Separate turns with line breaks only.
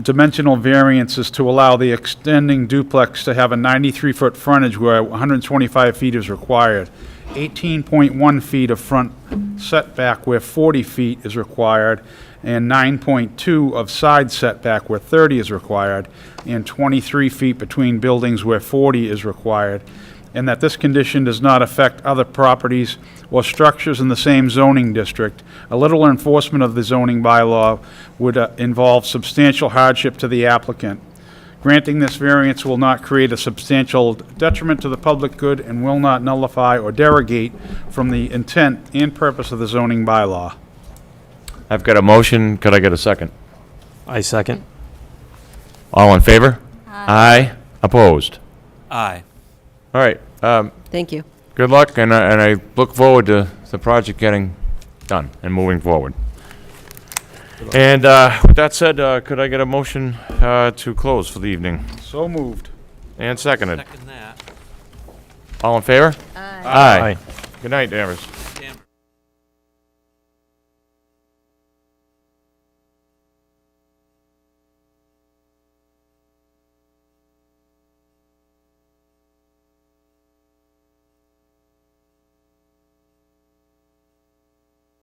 dimensional variances to allow the extending duplex to have a 93-foot frontage where 125 feet is required, 18.1 feet of front setback where 40 feet is required, and 9.2 of side setback where 30 is required, and 23 feet between buildings where 40 is required, and that this condition does not affect other properties or structures in the same zoning district. A little enforcement of the zoning bylaw would uh, involve substantial hardship to the applicant. Granting this variance will not create a substantial detriment to the public good and will not nullify or derogate from the intent and purpose of the zoning bylaw.
I've got a motion, could I get a second?
I second.
All in favor? Aye. Opposed?
Aye.
All right, um,
Thank you.
good luck, and I, and I look forward to the project getting done and moving forward. And, uh, with that said, uh, could I get a motion, uh, to close for the evening?
So moved.
And seconded.
Second that.
All in favor? Aye. Good night, Davis.